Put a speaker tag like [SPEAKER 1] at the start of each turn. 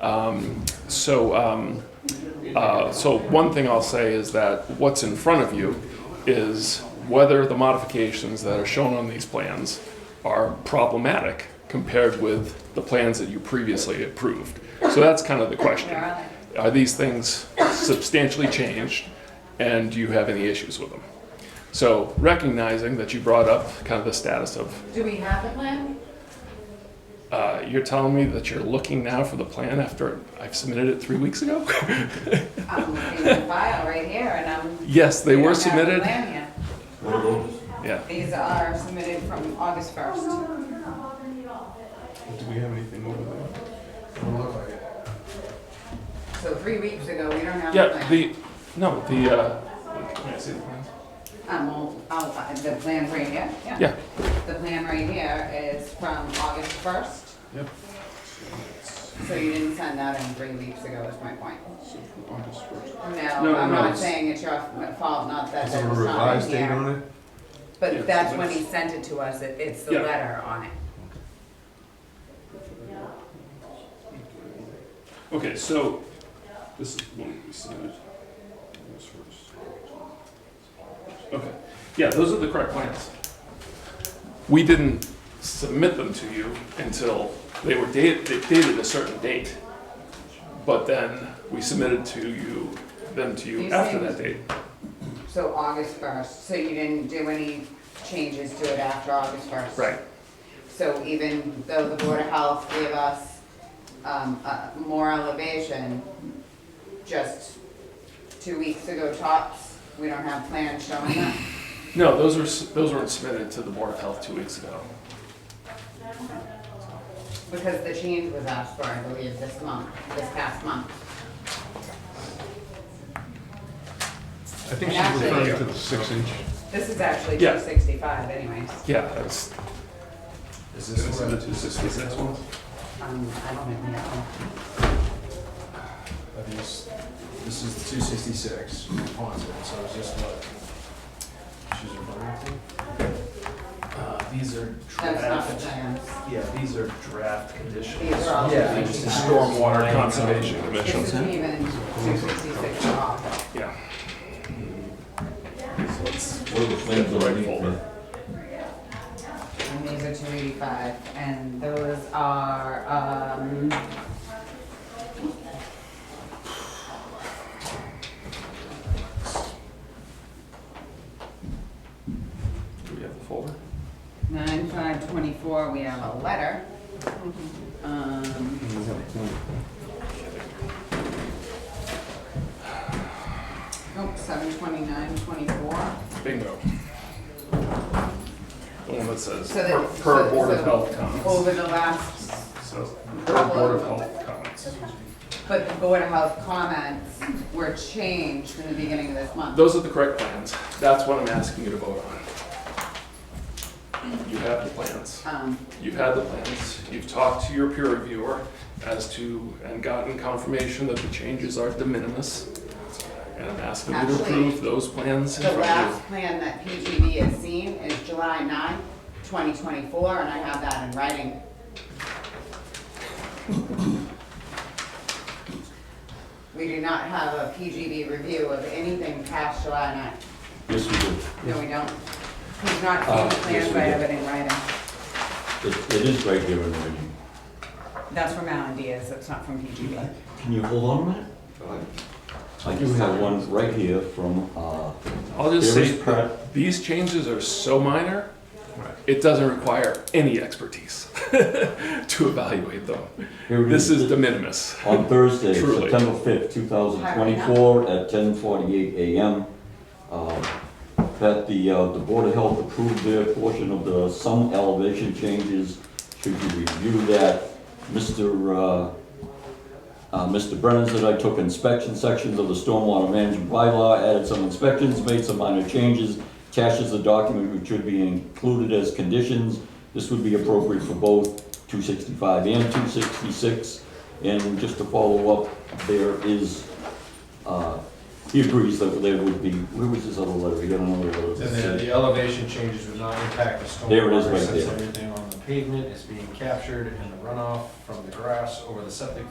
[SPEAKER 1] Um, so, um, uh, so one thing I'll say is that what's in front of you is whether the modifications that are shown on these plans are problematic compared with the plans that you previously approved. So that's kind of the question. Are these things substantially changed and do you have any issues with them? So recognizing that you brought up kind of the status of,
[SPEAKER 2] Do we have a plan?
[SPEAKER 1] uh, you're telling me that you're looking now for the plan after I've submitted it three weeks ago?
[SPEAKER 2] I'm looking at the file right here and I'm.
[SPEAKER 1] Yes, they
[SPEAKER 2] we
[SPEAKER 1] were
[SPEAKER 2] don't have the
[SPEAKER 1] submitted.
[SPEAKER 2] plan yet.
[SPEAKER 1] Yeah.
[SPEAKER 2] These are submitted from August first.
[SPEAKER 3] Do we have anything over there? Doesn't look like it.
[SPEAKER 2] So three weeks ago, we don't have a
[SPEAKER 1] Yeah,
[SPEAKER 2] plan.
[SPEAKER 1] the, no, the, uh, can I see the plans?
[SPEAKER 2] I'm old, oh, the plan's right here, yeah.
[SPEAKER 1] Yeah,
[SPEAKER 2] The plan right here is from August first.
[SPEAKER 3] Yep.
[SPEAKER 2] So you didn't send that in three weeks ago, is my point.
[SPEAKER 3] So from August first.
[SPEAKER 2] No,
[SPEAKER 3] No,
[SPEAKER 2] I'm
[SPEAKER 3] no,
[SPEAKER 2] not
[SPEAKER 3] it's-
[SPEAKER 2] saying it's your fault, not that
[SPEAKER 3] Is there
[SPEAKER 2] that
[SPEAKER 3] a
[SPEAKER 2] was not
[SPEAKER 3] revised
[SPEAKER 2] in
[SPEAKER 3] date
[SPEAKER 2] here.
[SPEAKER 3] on it?
[SPEAKER 1] Yeah,
[SPEAKER 2] But
[SPEAKER 1] it's
[SPEAKER 2] that's
[SPEAKER 1] the
[SPEAKER 2] when he
[SPEAKER 1] best.
[SPEAKER 2] sent it to us, it- it's the
[SPEAKER 1] Yeah.
[SPEAKER 2] letter on it.
[SPEAKER 1] okay, so,
[SPEAKER 3] This is one we submitted. August first.
[SPEAKER 1] okay, yeah, those are the correct plans. We didn't submit them to you until they were dated, dated a certain date. But then we submitted to you, them to you
[SPEAKER 2] These
[SPEAKER 1] after
[SPEAKER 2] things-
[SPEAKER 1] that date.
[SPEAKER 2] So August first, so you didn't do any changes to it after August first?
[SPEAKER 1] Right,
[SPEAKER 2] So even though the Board of Health gave us, um, uh, more elevation, just two weeks ago tops, we don't have plans showing that.
[SPEAKER 1] no, those were, s- those weren't submitted to the Board of Health two weeks ago.
[SPEAKER 2] Because the change was asked for, I believe, this month, this past month.
[SPEAKER 3] I think
[SPEAKER 2] she's
[SPEAKER 3] she's
[SPEAKER 2] referring
[SPEAKER 3] referring to the six inch.
[SPEAKER 2] This is actually
[SPEAKER 1] Yeah.
[SPEAKER 2] two sixty-five anyways.
[SPEAKER 1] Yeah, that's,
[SPEAKER 3] Is this the two sixty-six one?
[SPEAKER 2] Um, I don't even know.
[SPEAKER 4] I mean, this, this is two sixty-six, Ponset, so it's just what she's referring to. Uh, these are
[SPEAKER 2] That's not the
[SPEAKER 4] draft,
[SPEAKER 2] plans.
[SPEAKER 4] yeah, these are draft conditions.
[SPEAKER 2] These are all
[SPEAKER 4] Yeah,
[SPEAKER 2] the
[SPEAKER 4] just the
[SPEAKER 2] conditions.
[SPEAKER 1] Stormwater
[SPEAKER 4] Right.
[SPEAKER 1] Conservation
[SPEAKER 2] This
[SPEAKER 1] Commission,
[SPEAKER 2] isn't even two sixty-six at all.
[SPEAKER 1] yeah.
[SPEAKER 5] What are the
[SPEAKER 1] That's
[SPEAKER 5] plans
[SPEAKER 1] the right
[SPEAKER 5] underneath
[SPEAKER 1] folder.
[SPEAKER 5] that?
[SPEAKER 2] And these are two eighty-five, and those are, um.
[SPEAKER 1] Do we have the folder?
[SPEAKER 2] Nine five twenty-four, we have a letter. Um, oh, seven twenty-nine twenty-four.
[SPEAKER 1] Bingo. The one that says
[SPEAKER 2] So that-
[SPEAKER 1] per- per
[SPEAKER 2] so-
[SPEAKER 1] Board of
[SPEAKER 2] so- Oh.
[SPEAKER 1] Health comments.
[SPEAKER 2] Over the last,
[SPEAKER 1] So per Board of Health comments.
[SPEAKER 2] but the Board of Health comments were changed in the beginning of this month.
[SPEAKER 1] Those are the correct plans. That's what I'm asking you to vote on. You have the plans.
[SPEAKER 2] Um,
[SPEAKER 1] You've had the plans. You've talked to your peer reviewer as to, and gotten confirmation that the changes are de minimis. And I'm asking you to
[SPEAKER 2] Actually,
[SPEAKER 1] approve those plans in
[SPEAKER 2] The
[SPEAKER 1] front of
[SPEAKER 2] last plan that PGV has seen is July 9, 2024, and I have that in writing. We do not have a PGV review of anything past July 9.
[SPEAKER 5] Yes, we do.
[SPEAKER 2] No, we don't. He's not
[SPEAKER 5] Uh,
[SPEAKER 2] seen the plans,
[SPEAKER 5] yes, we
[SPEAKER 2] but I
[SPEAKER 5] do.
[SPEAKER 2] have it in writing.
[SPEAKER 5] It, it is right there in writing.
[SPEAKER 2] That's from Alan Diaz, that's not from PGV.
[SPEAKER 5] Can you hold on a minute? I do have one right here from, uh,
[SPEAKER 1] I'll just
[SPEAKER 5] There
[SPEAKER 1] say,
[SPEAKER 5] is pro-
[SPEAKER 1] these changes are so minor, it doesn't require any expertise to evaluate them.
[SPEAKER 5] Here it
[SPEAKER 1] This
[SPEAKER 5] is.
[SPEAKER 1] is de minimis.
[SPEAKER 5] on Thursday,
[SPEAKER 1] Truly.
[SPEAKER 5] September fifth, two thousand twenty-four, at ten forty-eight AM, uh, that the, uh, the Board of Health approved their portion of the some elevation changes. Should you review that? Mr. uh, Uh, Mr. Brennan said I took inspection sections of the stormwater management bylaw, added some inspections, made some minor changes, attaches the document which should be included as conditions. This would be appropriate for both two sixty-five and two sixty-six. And just to follow up, there is, uh, he agrees that there would be, where was this other letter? We got another letter.
[SPEAKER 4] And then the elevation changes would not impact the stormwater.
[SPEAKER 5] There it is right
[SPEAKER 4] Since
[SPEAKER 5] there.
[SPEAKER 4] everything on the pavement is being captured and the runoff from the grass over the septic